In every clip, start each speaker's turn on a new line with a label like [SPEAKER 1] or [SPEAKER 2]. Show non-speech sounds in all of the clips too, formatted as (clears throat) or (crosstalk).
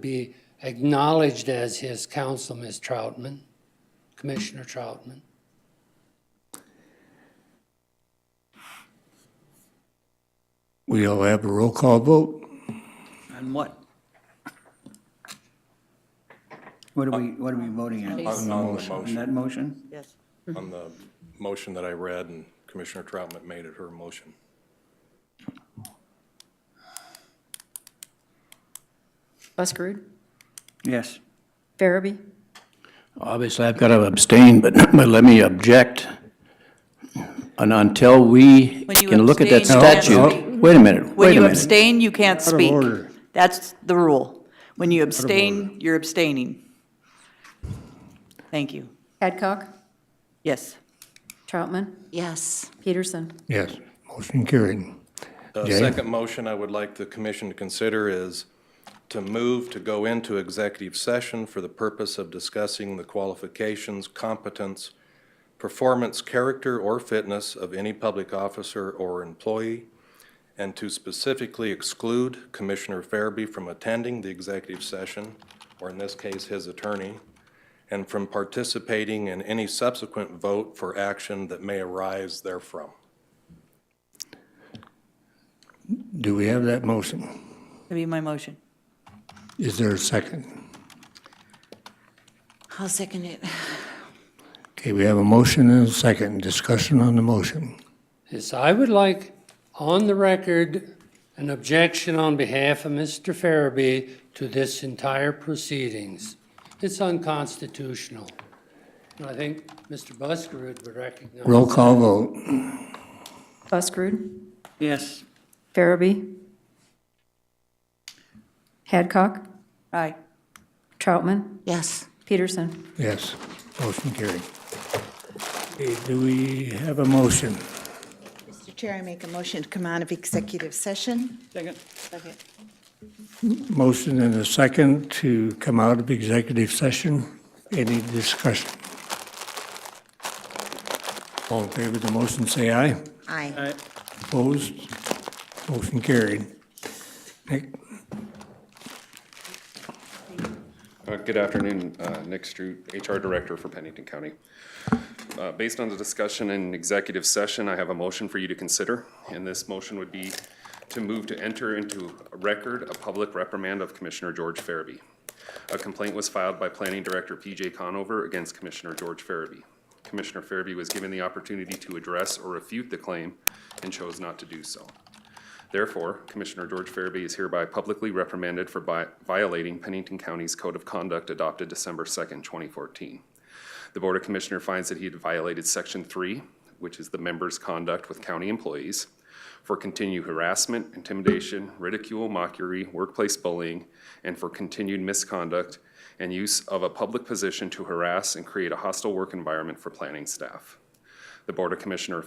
[SPEAKER 1] be acknowledged as his counsel, Ms. Troutman, Commissioner Troutman.
[SPEAKER 2] We'll have a roll call vote.
[SPEAKER 3] On what? What are we, what are we voting on?
[SPEAKER 4] On the
[SPEAKER 3] On
[SPEAKER 4] motion,
[SPEAKER 3] that motion?
[SPEAKER 5] Yes.
[SPEAKER 4] on the motion that I read and Commissioner Troutman made it her motion.
[SPEAKER 6] Buskerud,
[SPEAKER 3] Yes.
[SPEAKER 6] Farabee,
[SPEAKER 7] Obviously, I've got to abstain, but (clears throat) but let me object. And until we
[SPEAKER 5] When you
[SPEAKER 7] can look at that
[SPEAKER 5] abstain, you have to
[SPEAKER 7] statute, wait a minute,
[SPEAKER 5] When
[SPEAKER 7] wait a
[SPEAKER 5] you
[SPEAKER 7] minute.
[SPEAKER 5] abstain, you can't
[SPEAKER 3] of
[SPEAKER 5] speak.
[SPEAKER 3] order.
[SPEAKER 5] That's the rule. When you abstain, you're abstaining. Thank you.
[SPEAKER 6] Hadcock,
[SPEAKER 5] Yes.
[SPEAKER 6] Troutman,
[SPEAKER 5] Yes.
[SPEAKER 6] Peterson.
[SPEAKER 2] Yes, motion carried.
[SPEAKER 4] The
[SPEAKER 2] Jay?
[SPEAKER 4] second motion I would like the commission to consider is to move to go into executive session for the purpose of discussing the qualifications, competence, performance, character, or fitness of any public officer or employee, and to specifically exclude Commissioner Farabee from attending the executive session, or in this case, his attorney, and from participating in any subsequent vote for action that may arise therefrom.
[SPEAKER 2] Do we have that motion?
[SPEAKER 5] That'd be my motion.
[SPEAKER 2] Is there a second?
[SPEAKER 5] I'll second it.
[SPEAKER 2] Okay, we have a motion and a second. Discussion on the motion.
[SPEAKER 1] Yes, I would like on the record an objection on behalf of Mr. Farabee to this entire proceedings. It's unconstitutional. And I think Mr. Buskerud would recognize.
[SPEAKER 2] Roll call vote.
[SPEAKER 6] Buskerud,
[SPEAKER 3] Yes.
[SPEAKER 6] Farabee, Hadcock,
[SPEAKER 5] Aye.
[SPEAKER 6] Troutman,
[SPEAKER 5] Yes.
[SPEAKER 6] Peterson.
[SPEAKER 2] Yes, motion carried. Okay, do we have a motion?
[SPEAKER 8] Mr. Chair, I make a motion to come out of executive session.
[SPEAKER 3] Second.
[SPEAKER 8] Second.
[SPEAKER 2] Motion and a second to come out of executive session. Any discussion? All in favor of the motion, say aye.
[SPEAKER 8] Aye.
[SPEAKER 2] Opposed? Motion carried. Nick?
[SPEAKER 9] Uh, Good afternoon, uh, Nick Strout, HR Director for Pennington County. Uh, Based on the discussion in executive session, I have a motion for you to consider, and this motion would be to move to enter into record a public reprimand of Commissioner George Farabee. A complaint was filed by Planning Director P.J. Conover against Commissioner George Farabee. Commissioner Farabee was given the opportunity to address or refute the claim and chose not to do so. Therefore, Commissioner George Farabee is hereby publicly reprimanded for vi- violating Pennington County's Code of Conduct adopted December 2nd, 2014. The Board of Commissioner finds that he had violated Section 3, which is the member's conduct with county employees, for continued harassment, intimidation, ridicule, mockery, workplace bullying, and for continued misconduct and use of a public position to harass and create a hostile work environment for planning staff. The Board of Commissioner,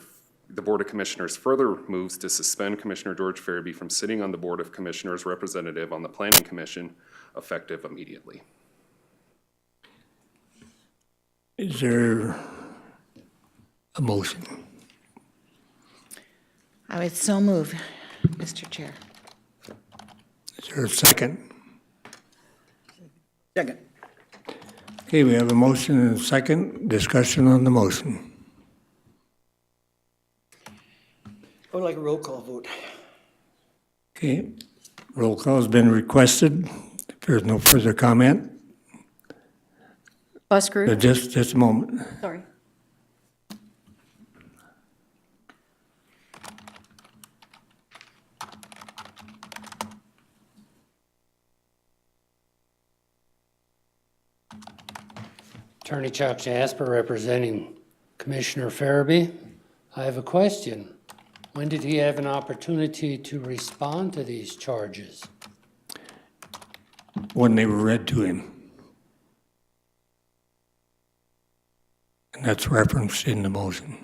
[SPEAKER 9] the Board of Commissioners further moves to suspend Commissioner George Farabee from sitting on the Board of Commissioners representative on the Planning Commission effective immediately.
[SPEAKER 2] Is there a motion?
[SPEAKER 8] I would so move, Mr. Chair.
[SPEAKER 2] Is there a second?
[SPEAKER 3] Second.
[SPEAKER 2] Okay, we have a motion and a second. Discussion on the motion.
[SPEAKER 3] I would like a roll call vote.
[SPEAKER 2] Okay, roll call has been requested. If there's no further comment, uh,
[SPEAKER 6] Buskerud,
[SPEAKER 2] just, just a moment.
[SPEAKER 6] sorry.
[SPEAKER 1] Attorney Chuck Jasper representing Commissioner Farabee. I have a question. When did he have an opportunity to respond to these charges?
[SPEAKER 2] When they were read to him. And that's referenced in the motion.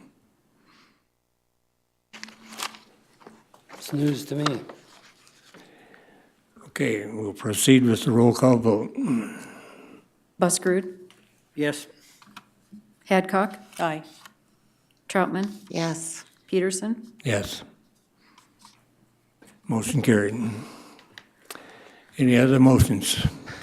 [SPEAKER 1] It's news to me.
[SPEAKER 2] Okay, we'll proceed with the roll call vote.
[SPEAKER 6] Buskerud,
[SPEAKER 3] Yes.
[SPEAKER 6] Hadcock,
[SPEAKER 5] Aye.
[SPEAKER 6] Troutman,
[SPEAKER 8] Yes.
[SPEAKER 6] Peterson.
[SPEAKER 2] Yes. Motion carried. Any other motions?